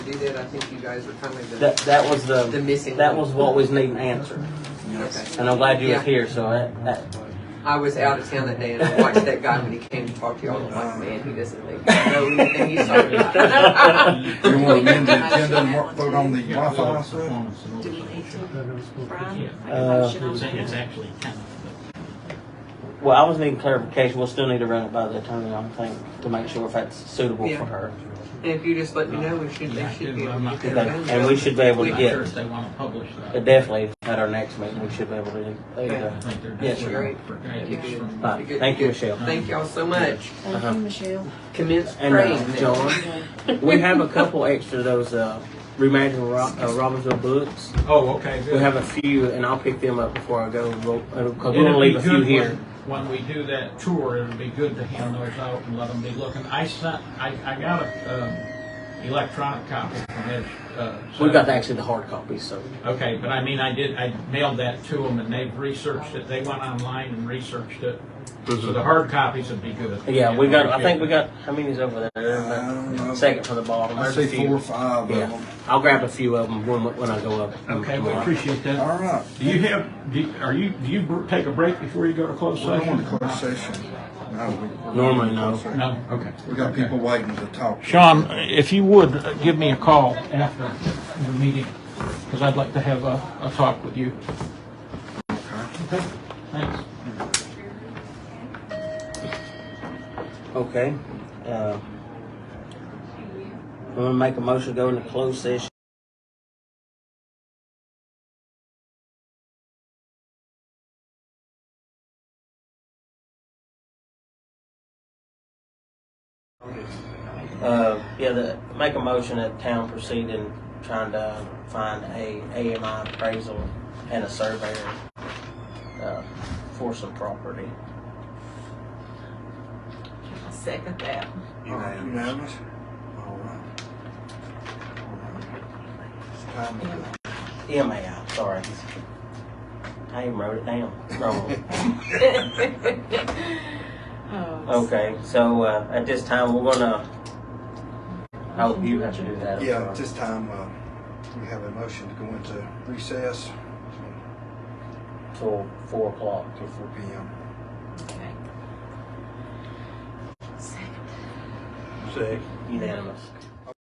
do that, I think you guys were kind of That, the, that was the the, missing. that link. was what was needing answered. Okay. And I'm glad you Yeah. was here, so that, that, I was out of town that day and I watched that guy when he came to talk to y'all. I'm like, man, he doesn't think I know anything he's talking about. You want to amend the agenda and mark- vote on the uh, modified officer? Do we need to, Brian? Make a Uh, motion on It's that? it's actually kind of, well, I was needing clarification. We'll still need to run it by the attorney, I think, to make sure if that's suitable Yeah. for her. And if you just let me know, we should, they should be able to get Okay. that done. And we should be able but to I'm get, sure if they want to publish but that. definitely at our next meeting, we should be able to do Okay. there I you think they're Yes, just sir. waiting for guidance from- Right. Thank you, Michelle. Thank y'all so much. Thank you, Michelle. Commence And, uh, praying. John? go. We have a couple extra of those, uh, Reimagine Ro- uh, Robbinsville books. Oh, okay, We good. have a few, and I'll pick them up before I go, because we're It'll gonna be leave a few good here. when, when we do that tour, it'll be good to hand those out and let them be looking. I sent, I, I got a, um, electronic copy from Ed. uh, so- We got actually the hard copies, so. Okay, but I mean, I did, I mailed that to them and they've researched it. They went online and researched it. So the hard copies would be good. Yeah, we got, I think we got, how many's over there? I don't know. Second from the bottom. I There's a see few. Uh, four or five of Yeah. them. I'll grab a few of them when, when I go up. Okay, we tomorrow. appreciate that. All right. Do you have, do, are you, do you br- take a break before you go to closed We're going session? to closed session. No, we- Normally, no. No, okay. We got people waiting to talk. Sean, if you would, uh, give me a call after the meeting, because I'd like to have a, a talk with you. Okay. Thanks. Okay. Uh, I'm gonna make a motion to go into closed session. Uh, yeah, the, make a motion that town proceed in trying to find a AMI appraisal and a surveyor, uh, for some property. Second that. Unanimous? All right. All right. It's time to go. EMAI, sorry. I even wrote it down wrong. Oh, Okay, so uh, at this time, we're gonna, oh, you have to do that. I'm Yeah, sorry. at this time, uh, we have a motion to go into recess Till four o'clock. till four P M. okay. Second. Second. Unanimous.